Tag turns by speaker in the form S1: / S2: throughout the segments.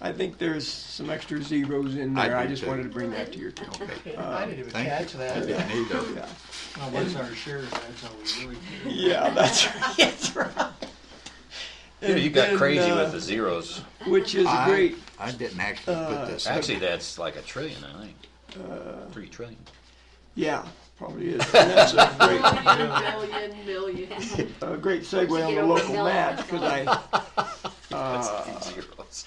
S1: I think there's some extra zeros in there.
S2: I
S1: I,
S2: do
S1: just
S2: too.
S1: wanted to bring that to your attention.
S3: Uh,
S4: I didn't even
S2: Thank
S4: catch
S2: you. I
S4: that.
S2: didn't either.
S1: Yeah,
S4: Well, what's our share, that's all we really do.
S1: yeah, that's that's right.
S3: Yeah, you
S1: And
S3: got
S1: then,
S3: crazy
S1: uh,
S3: with the zeros.
S1: which is
S2: I-
S1: great. Uh,
S2: I didn't actually put this up.
S3: Actually, that's like a trillion, I think.
S5: Uh,
S3: Three trillion.
S1: Yeah, probably is. And that's a great.
S6: Million, million, million.
S1: a great segue on the local match, because I,
S5: uh,
S3: That's three zeros.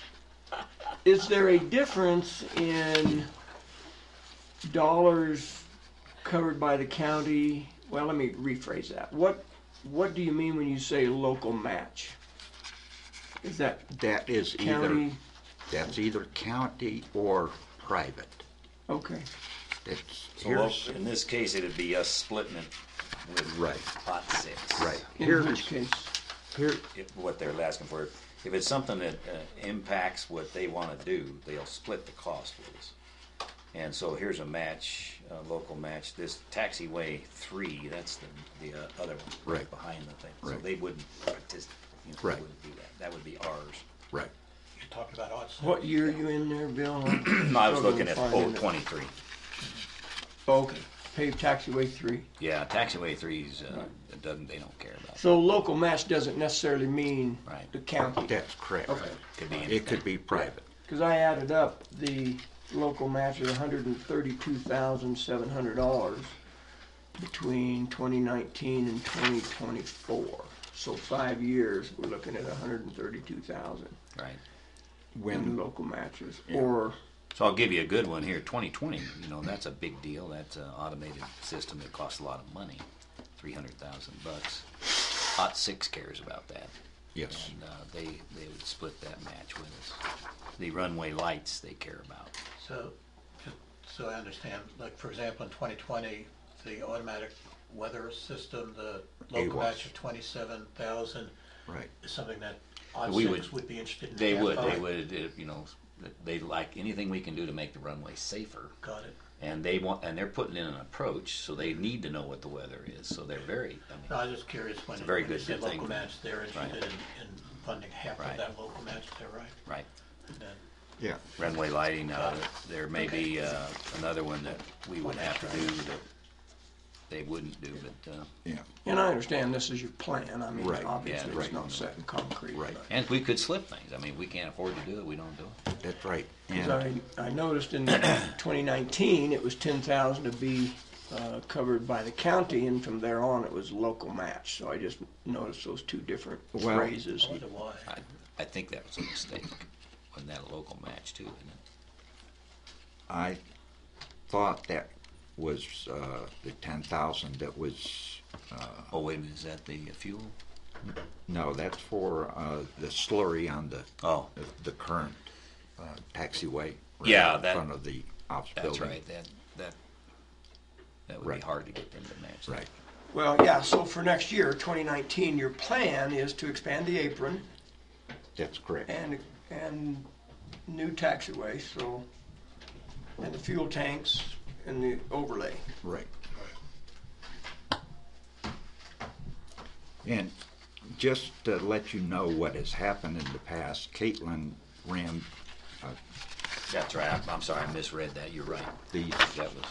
S1: is there a difference in dollars covered by the county? Well, let me rephrase that. What, what do you mean when you say local match? Is that
S2: That is either,
S1: county?
S2: that's either county or private.
S1: Okay,
S2: It's,
S5: So well,
S2: here's,
S5: in this case, it'd be us splitting it with
S2: Right.
S5: pot six.
S2: right,
S1: in which
S2: here's,
S1: case,
S2: here,
S5: If, what they're asking for, if it's something that uh, impacts what they want to do, they'll split the cost with us. And so here's a match, a local match. This taxiway three, that's the the uh, other one
S2: Right.
S5: behind the thing. So
S2: Right.
S5: they wouldn't participate. You know, they
S2: Right.
S5: wouldn't do that. That would be ours.
S2: right.
S4: You talked about odds.
S1: what year are you in there, Bill? I'm
S5: No, I was looking
S1: struggling
S5: at
S1: to find
S5: oh
S1: it.
S5: twenty three.
S1: Okay, paved taxiway three.
S3: Yeah, taxiway threes, uh, it doesn't, they don't care about. it.
S1: So local match doesn't necessarily mean
S3: Right.
S1: the county.
S2: That's correct.
S1: Okay.
S3: Could be
S2: It
S3: anything.
S2: could be private.
S1: Because I added up the local match is hundred and thirty-two thousand seven hundred dollars between twenty nineteen and twenty twenty-four. So five years, we're looking at $132,000
S3: Right.
S1: in
S2: When,
S1: local matches, or,
S3: So I'll give you a good one here. 2020, you know, that's a big deal. That's an automated system that costs a lot of money, 300,000 bucks. Hot Six cares about that,
S2: yes,
S3: and uh, they they would split that match with us. The runway lights they care about.
S4: So, just so I understand, like, for example, in twenty twenty, the automatic weather system, the local
S2: AWACS.
S4: match of twenty-seven thousand
S2: right.
S4: is something that odd
S3: We
S4: six
S3: would-
S4: would be interested in.
S3: They would, they
S4: identifying.
S3: would, if, you know, they like anything we can do to make the runway safer.
S4: Got it.
S3: And they want, and they're putting in an approach, so they need to know what the weather is. So they're very, I mean,
S4: No, I was just curious when
S3: It's a
S4: you
S3: very
S4: when you
S3: good
S4: say
S3: thing.
S4: local match, they're interested in, in funding half of
S3: Right.
S4: that local match, they're right.
S3: right.
S4: And then-
S2: Yeah,
S3: runway lighting, uh, there may be, uh, another one that we would have to do that they wouldn't do, but, uh,
S2: yeah,
S1: and I understand this is your plan, I mean,
S2: Right, yeah,
S1: obviously, it's
S2: right.
S1: not set in concrete.
S2: Right.
S1: but-
S3: and we could slip things. I mean, we can't afford to do it, we don't do it.
S2: that's right.
S1: 'Cause
S2: And
S1: I, I noticed in 2019, it was 10,000 to be uh, covered by the county, and from there on, it was local match. So I just noticed those two different
S2: Well-
S1: phrases.
S4: I wonder why.
S3: I, I think that was a mistake. Wasn't that a local match too, isn't it?
S2: I thought that was, uh, the ten thousand that was,
S3: Oh, wait a minute, is that the fuel?
S2: no, that's for, uh, the slurry on the,
S3: Oh,
S2: the- the current, uh, taxiway. right
S3: Yeah,
S2: In
S3: that-
S2: front of the ops building.
S3: that's right, that, that, that would be
S2: Right.
S3: hard to get them to match. that.
S2: Right,
S1: Well, yeah, so for next year, 2019, your plan is to expand the apron
S2: that's correct.
S1: and, and new taxiway, so, and the fuel tanks and the overlay.
S2: Right. And just to let you know what has happened in the past, Caitlin ran
S3: That's right, I'm- I'm sorry, I misread that, you're right.
S2: these,
S3: That was,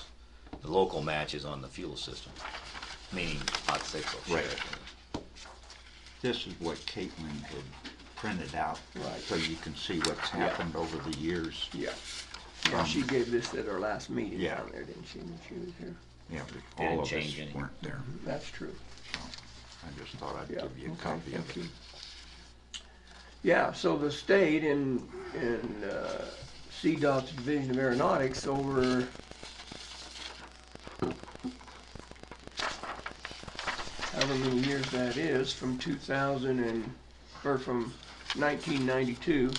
S3: the local match is on the fuel system, meaning hot six will share
S2: Right.
S3: it.
S2: this is what Caitlin had printed out,
S1: Right.
S2: so you can see what's happened over the years.
S1: Yeah. Yeah, she gave this at our last meeting
S2: Yeah.
S1: down there, didn't she, when she was here?
S2: Yeah, but all of us
S3: change any.
S2: weren't there.
S1: That's true.
S2: I just thought I'd
S1: Yeah,
S2: give you
S1: okay,
S2: a copy
S1: thank
S2: of it.
S1: you. Yeah, so the state and, and uh, CDOT's Division of Aeronautics over however many years that is, from 2000 and, or from 1992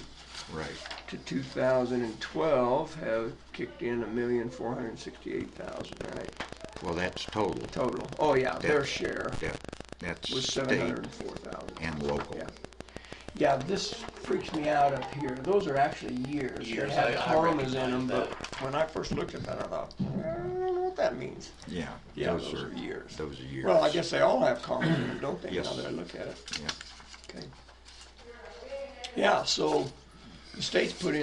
S2: Right,
S1: to 2012 have kicked in a million four hundred sixty-eight thousand, right,
S2: well, that's total.
S1: total. Oh, yeah, their
S2: Yeah.
S1: share
S2: That, that's
S1: was
S2: state
S1: 704,000.
S2: and local.
S1: Yeah. Yeah, this freaks me out up here. Those are actually years.
S4: Years,
S1: They have
S4: I- I
S1: commas in them,
S4: recognize
S1: but when I first looked at that, I thought, "Eh, I don't know what that means.
S2: Yeah.
S1: Yeah, those are years.
S2: Those are years.
S1: Well, I guess they all have commas in them, don't they, now
S2: Yes.
S1: that I look at it?
S2: Yeah.
S1: Okay. Yeah, so the state's put in.